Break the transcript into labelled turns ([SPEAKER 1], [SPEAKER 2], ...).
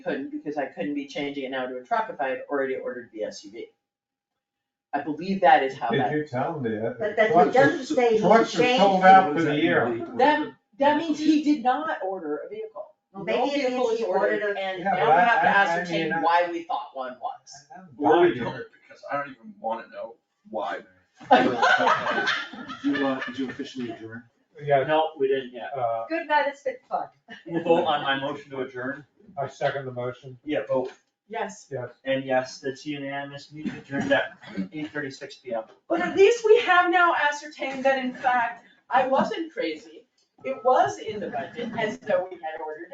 [SPEAKER 1] couldn't, because I couldn't be changing it now to a truck if I had already ordered the SUV. I believe that is how
[SPEAKER 2] Did
[SPEAKER 1] that,
[SPEAKER 2] you tell him that?
[SPEAKER 3] But that
[SPEAKER 2] Trucks are-
[SPEAKER 3] doesn't say he
[SPEAKER 2] Trucks are
[SPEAKER 3] changed
[SPEAKER 2] sold
[SPEAKER 3] it.
[SPEAKER 2] out for the year.
[SPEAKER 1] that, that means he did not order a vehicle. No
[SPEAKER 3] Well, maybe it
[SPEAKER 1] vehicle
[SPEAKER 3] means
[SPEAKER 1] is
[SPEAKER 3] he ordered a-
[SPEAKER 1] And
[SPEAKER 2] Yeah,
[SPEAKER 1] now
[SPEAKER 2] but
[SPEAKER 1] we
[SPEAKER 2] I-
[SPEAKER 1] have to
[SPEAKER 2] I- I
[SPEAKER 1] ascertain
[SPEAKER 2] mean, I-
[SPEAKER 1] why we thought one was.
[SPEAKER 4] Or we don't, because I don't even wanna know why.
[SPEAKER 5] Did you, uh, did you officially adjourn?
[SPEAKER 2] Yeah,
[SPEAKER 6] No, we didn't yet.
[SPEAKER 2] uh,
[SPEAKER 3] Good night, it's been fun.
[SPEAKER 6] We'll vote on my motion to adjourn.
[SPEAKER 2] I second the motion,
[SPEAKER 6] Yeah, vote,
[SPEAKER 1] Yes,
[SPEAKER 2] yes.
[SPEAKER 6] and yes, that's unanimous, meeting adjourned at eight thirty-six P M.
[SPEAKER 1] but at least we have now ascertained that in fact, I wasn't crazy. It was in the budget as though we had ordered